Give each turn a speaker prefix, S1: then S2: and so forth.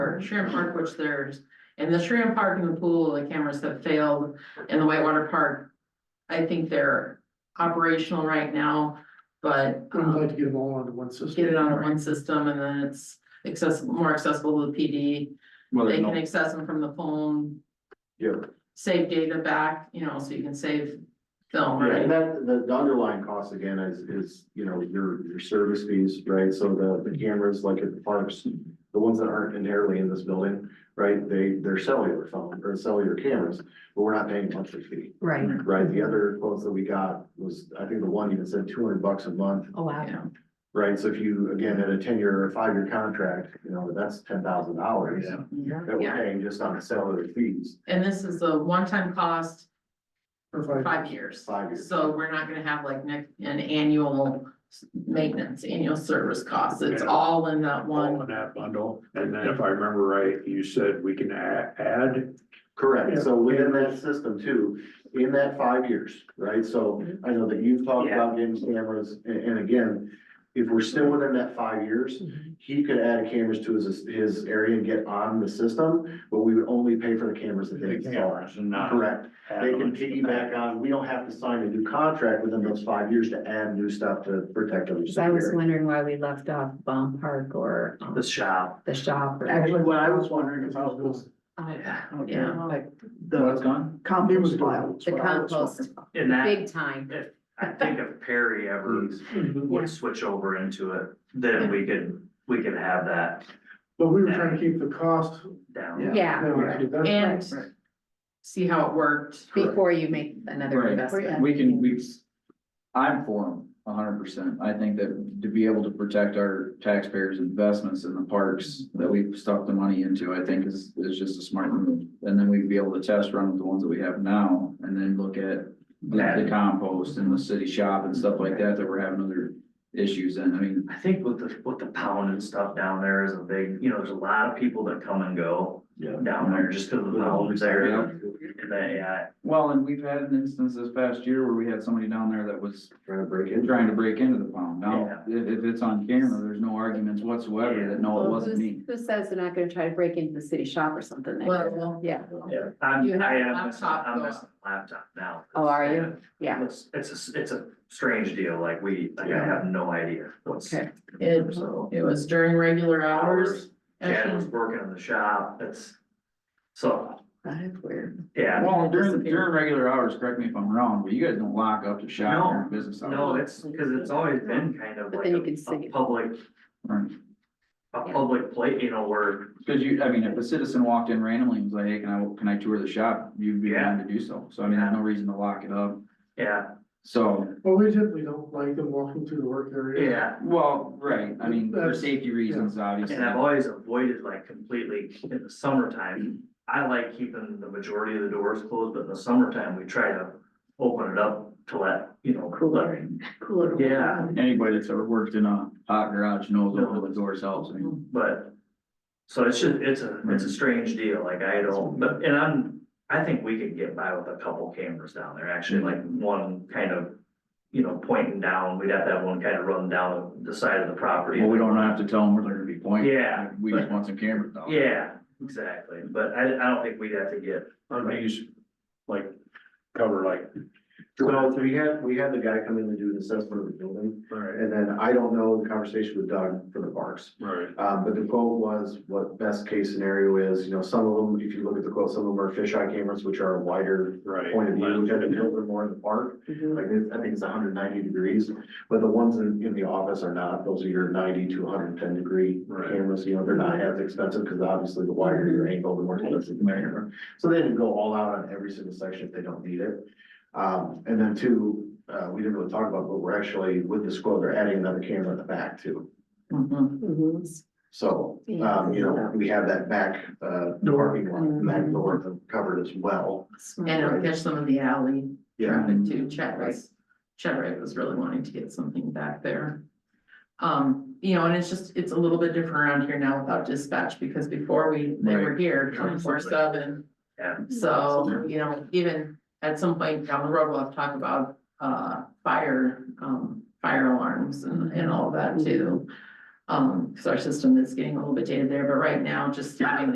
S1: Park, Sharon Park, which there's, and the Sharon Park and the pool, the cameras have failed, and the Whitewater Park. I think they're operational right now, but
S2: We'd
S1: um,
S2: like to get them all onto one system.
S1: get it on one system and then it's accessible, more accessible to the PD.
S3: Well,
S1: They
S3: there's
S1: can
S3: no,
S1: access them from the phone,
S3: yeah,
S1: save data back, you know, so you can save film,
S4: Yeah,
S1: right?
S4: and that, the, the underlying cost again is, is, you know, your, your service fees, right? So the, the cameras, like at the parks, the ones that aren't inherently in this building, right? They, they're cellular phone or cellular cameras, but we're not paying a monthly fee,
S5: Right,
S4: right? The other quotes that we got was, I think the one even said two hundred bucks a month,
S5: oh, wow.
S1: Yeah.
S4: right? So if you, again, had a ten-year or five-year contract, you know, that's ten thousand dollars that
S1: Yeah.
S4: we're paying just on cellular fees.
S1: And this is a one-time cost
S2: For
S1: for
S2: five-
S1: five years.
S4: Five years.
S1: So we're not gonna have like next, an annual s- maintenance, annual service costs. It's
S3: Yeah.
S1: all in that
S3: all
S1: one.
S3: in that bundle, and then if I remember right, you said we can a- add,
S4: Correct,
S2: Yeah.
S4: so within that system too, in that five years, right, so
S2: Mm-hmm.
S4: I know that you've talked about getting cameras, and, and again. If we're still within that five years,
S6: Mm-hmm.
S5: Mhm.
S4: he could add cameras to his, his area and get on the system, but we would only pay for the cameras that they
S3: the
S4: install.
S3: cameras and not.
S4: Correct,
S3: add
S4: they
S3: on
S4: can
S3: to the
S4: piggyback on, we don't have to sign a new contract within those five years to add new stuff to protect them.
S5: Cause I was wondering why we left off Bomb Park or um,
S7: the shop.
S5: the shop. or-
S7: Actually, what I was wondering is how those,
S5: Oh,
S1: Yeah.
S7: like
S3: What's
S7: the
S3: gone?
S2: It was
S7: compost pile.
S2: gone.
S5: The compost,
S7: In that,
S5: big time.
S7: I think if Perry ever
S3: Mm.
S2: Mhm.
S5: Yeah.
S7: would switch over into it, then we could, we could have that
S2: But we were trying to keep the cost
S7: down.
S5: Yeah,
S2: down. That's-
S1: And
S5: Right.
S1: see how it worked.
S5: before you make another
S6: Right.
S5: investment.
S6: We can, we, I'm for them hundred percent. I think that to be able to protect our taxpayers' investments in the parks that we've stuck the money into, I think is, is just a smart move. And then we'd be able to test run with the ones that we have now and then look at the- the compost and the city shop and stuff like that, that we're having other issues in. I mean,
S7: I think with the, with the pound and stuff down there is a big, you know, there's a lot of people that come and go
S3: Yeah.
S7: down there just because of the pounds there. And they, uh,
S6: well, and we've had an instance this past year where we had somebody down there that was
S4: Trying to break
S6: They're
S4: in.
S6: trying to break into the pound. Now, if, if it's on camera, there's no arguments whatsoever that no, it
S5: Well,
S6: wasn't
S5: who's-
S6: me.
S5: Who says they're not gonna try to break into the city shop or something? They-
S1: Well,
S5: Yeah,
S7: yeah, I'm,
S1: You have
S7: I
S1: a
S7: am missing,
S1: laptop,
S7: I'm
S1: though.
S7: missing a laptop now.
S5: Oh, are you?
S7: Yeah.
S5: yeah,
S7: It's, it's, a s- it's a strange deal, like we, like I have no idea what's,
S5: okay.
S1: It,
S7: so.
S1: it was during regular hours.
S7: Jan was working in the shop, it's, so,
S5: That is weird.
S7: yeah,
S6: Well, during, during regular hours, correct me if I'm wrong, but you guys don't lock up the shop during business hours.
S7: no, it's, cause it's always been kind of
S5: But
S7: like
S5: then
S7: a,
S5: you can see
S7: a
S5: it.
S7: public,
S6: Right.
S7: a
S5: Yeah.
S7: public place, you know, where,
S6: Cause you, I mean, if a citizen walked in randomly and was like, hey, can I, can I tour the shop? You'd be
S7: Yeah.
S6: willing to do so. So I mean, there's no reason to lock it up.
S7: yeah,
S6: So,
S2: Well, we typically don't like them walking through the work area.
S7: yeah.
S6: well, right, I mean, for
S2: That's-
S6: safety reasons, obviously.
S7: And I've always avoided like completely in the summertime, I like keeping the majority of the doors closed, but in the summertime, we try to open it up to let, you know, let
S5: Cooler.
S7: Yeah.
S6: Anybody that's ever worked in a hot garage knows opening the doors helps. I mean,
S7: But, so it's just, it's a, it's a
S6: Hmm.
S7: strange deal, like I don't, but, and I'm, I think we could get by with a couple cameras down there, actually, like one kind of. You know, pointing down, we'd have to have one kind of run down the side of the property.
S6: Well, we don't have to tell them where they're gonna be pointing.
S7: Yeah,
S6: We just want some cameras though.
S7: Yeah, exactly, but I, I don't think we'd have to get,
S3: On these, like, cover like,
S4: So we had, we had the guy come in and do an assessment of the building.
S3: right,
S4: And then I don't know the conversation with Doug for the parks,
S3: right.
S4: um, but the quote was what best case scenario is, you know, some of them, if you look at the quote, some of them are fisheye cameras, which are a wider.
S3: Right.
S4: Point of view, which I think a little bit more in the park,
S5: Mhm.
S4: like it's- I think it's hundred ninety degrees, but the ones in, in the office are not, those are your ninety to hundred and ten degree.
S3: Right.
S4: Cameras, you know, they're not as expensive, because obviously the wider your angle, the more expensive the camera. So they didn't go all out on every single section if they don't need it. Um, and then two, uh, we didn't really talk about, but we're actually, with this quote, they're adding another camera in the back too.
S1: Mhm.
S5: Mhm.
S4: So, um, you know, we have that back, uh, parking lot, back door covered as well.
S1: And it'll catch some of the alley traffic too. Chet was, Chet Wright was really wanting to get something back there. Um, you know, and it's just, it's a little bit different around here now without dispatch because before we, they were here twenty-four seven.
S7: Yeah.
S1: So, you know, even at some point down the road, we'll have to talk about, uh, fire, um, fire alarms and, and all that too. Um, cause our system is getting a little bit dated there, but right now, just having